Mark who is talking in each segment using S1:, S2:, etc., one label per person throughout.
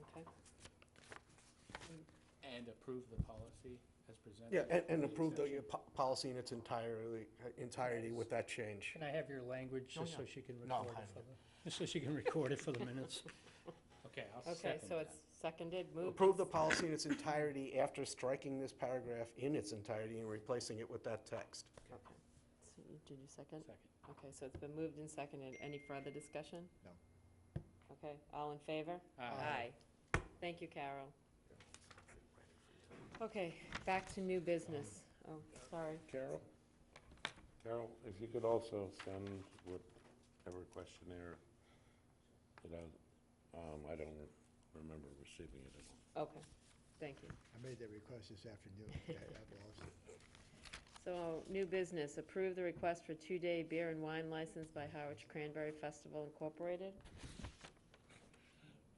S1: Okay.
S2: And approve the policy as presented?
S3: Yeah, and, and
S2: with
S3: approve the
S2: exception-
S3: uh, po- policy in its entirely, entirety with that change.
S4: Can I have your language,
S1: Oh,
S4: just so
S1: yeah.
S4: she can
S3: No,
S4: record
S3: I
S4: it for the, just so she can record it for the minutes?
S2: Okay, I'll second
S1: Okay, so
S2: that.
S1: it's seconded, moved.
S3: Approve the policy in its entirety after striking this paragraph in its entirety and replacing it with that text.
S1: Okay. So you- Did you second?
S2: Second.
S1: Okay, so it's been moved and seconded. Any further discussion?
S5: No.
S1: Okay, all in favor?
S2: Aye.
S1: Thank you, Carol. Okay, back to new business. Oh, sorry.
S3: Carol?
S6: Carol, if you could also send whatever questionnaire that I, um, I don't remember receiving it at all.
S1: Okay, thank you.
S5: I made that request this afternoon. I I lost it.
S1: So, new business, approve the request for two-day beer and wine license by Harwich Cranberry Festival Incorporated.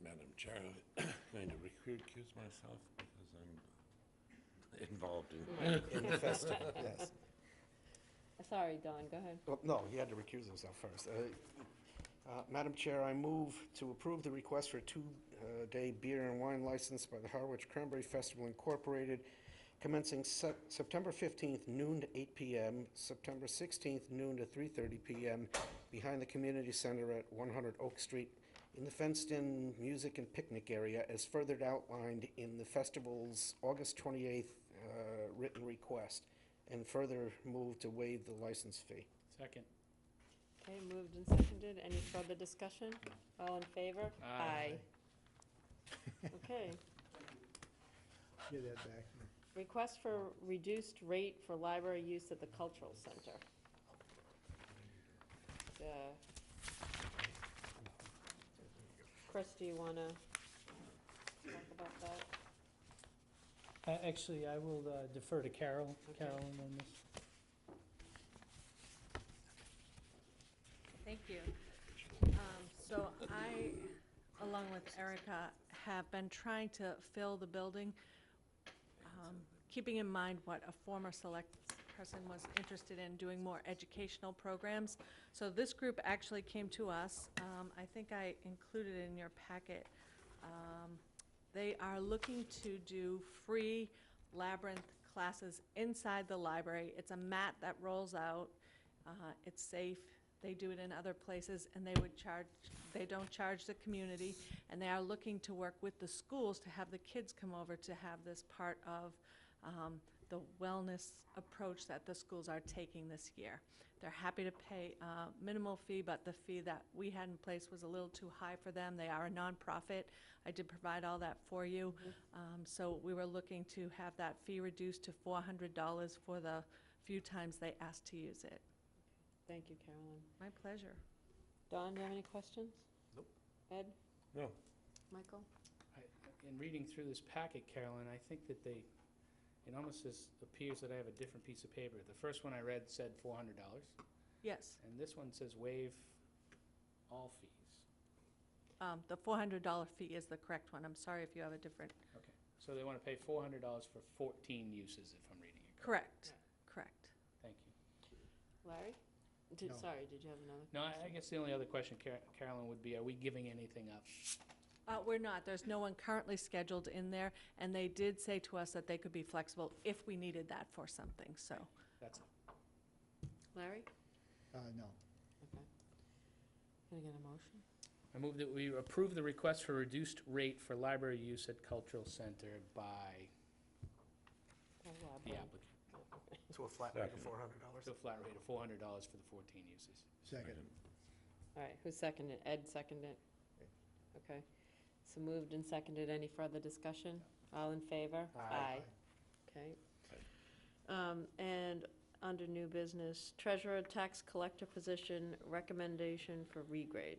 S6: Madam Chair, I'm going to recuse myself because I'm involved in.
S3: Infested, yes.
S1: Sorry, Don, go ahead.
S3: Well, No, he had to recuse himself first. Uh, uh, Madam Chair, I move to approve the request for a two-day beer and wine license by the Harwich Cranberry Festival Incorporated commencing Sep- September 15th noon to 8 PM, September 16th noon to 3:30 PM, behind the community center at 100 Oak Street, in the fenced-in music and picnic area, as further outlined in the festival's August 28th uh, written request, and further move to waive the license fee.
S2: Second.
S1: Okay, moved and seconded. Any further discussion? All in favor?
S2: Aye.
S1: Okay.
S5: Give that back. to me.
S1: Request for reduced rate for library use at the cultural center. The- Uh, Chris, do you wanna talk about that?
S4: Uh, Actually, I will uh, defer to Carol,
S1: Okay.
S4: Carolyn on this.
S7: Thank you. Um, So I, along with Erica, have been trying to fill the building, um, keeping in mind what a former select person was interested in, doing more educational programs. So this group actually came to us. Um, I think I included it in your packet. Um, They are looking to do free labyrinth classes inside the library. It's a mat that rolls out. Uh, It's safe. They do it in other places, and they would charge, they don't charge the community. And they are looking to work with the schools to have the kids come over to have this part of um, the wellness approach that the schools are taking this year. They're happy to pay uh, minimal fee, but the fee that we had in place was a little too high for them. They are a nonprofit. I did provide all that for you. Um, So we were looking to have that fee reduced to $400 for the few times they asked to use it.
S1: Thank you, Carolyn.
S7: My pleasure.
S1: Don, do you have any questions? Nope. Ed?
S6: No.
S1: Michael?
S2: I- In reading through this packet, Carolyn, I think that they, it almost is, appears that I have a different piece of paper. The first one I read said four hundred dollars,
S7: Yes,
S2: and this one says waive all fees.
S7: um, the $400 fee is the correct one. I'm sorry if you have a different,
S2: Okay, so they want to pay four hundred dollars for fourteen uses, if I'm reading it correctly.
S7: correct, correct.
S2: Thank you.
S1: Larry? Did,
S5: No.
S1: sorry, did you have another?
S2: No, I I guess the only other question, Car- Carolyn, would be, are we giving anything up?
S7: Uh, We're not, there's no one currently scheduled in there, and they did say to us that they could be flexible if we needed that for something, so.
S2: That's
S1: Larry?
S5: Uh, no.
S1: Okay. Can I get a motion?
S2: I move that we approve the request for reduced rate for library use at cultural center by
S1: Oh, Rob,
S2: the
S1: right.
S2: applicant,
S3: To a flat rate of
S6: Second.
S3: four hundred dollars.
S2: to a flat rate of four hundred dollars for the fourteen uses.
S5: Second.
S1: All right, who seconded? Ed seconded? Okay, so moved and seconded. Any further discussion? All in favor?
S3: Aye.
S1: Okay. Um, And under new business, treasurer tax collector position recommendation for regrade.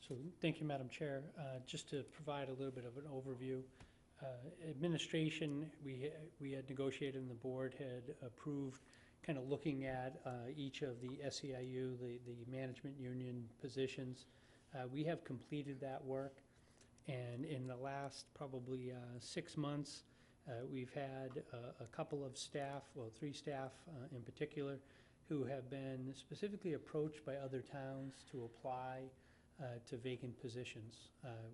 S4: So, thank you, Madam Chair. Uh, Just to provide a little bit of an overview, uh, administration, we, ha- we had negotiated and the board had approved, kind of looking at uh, each of the SEIU, the, the management union positions. Uh, We have completed that work, and in the last probably uh, six months, uh, we've had a- a couple of staff, well, three staff uh, in particular, who have been specifically approached by other towns to apply uh, to vacant positions. Uh,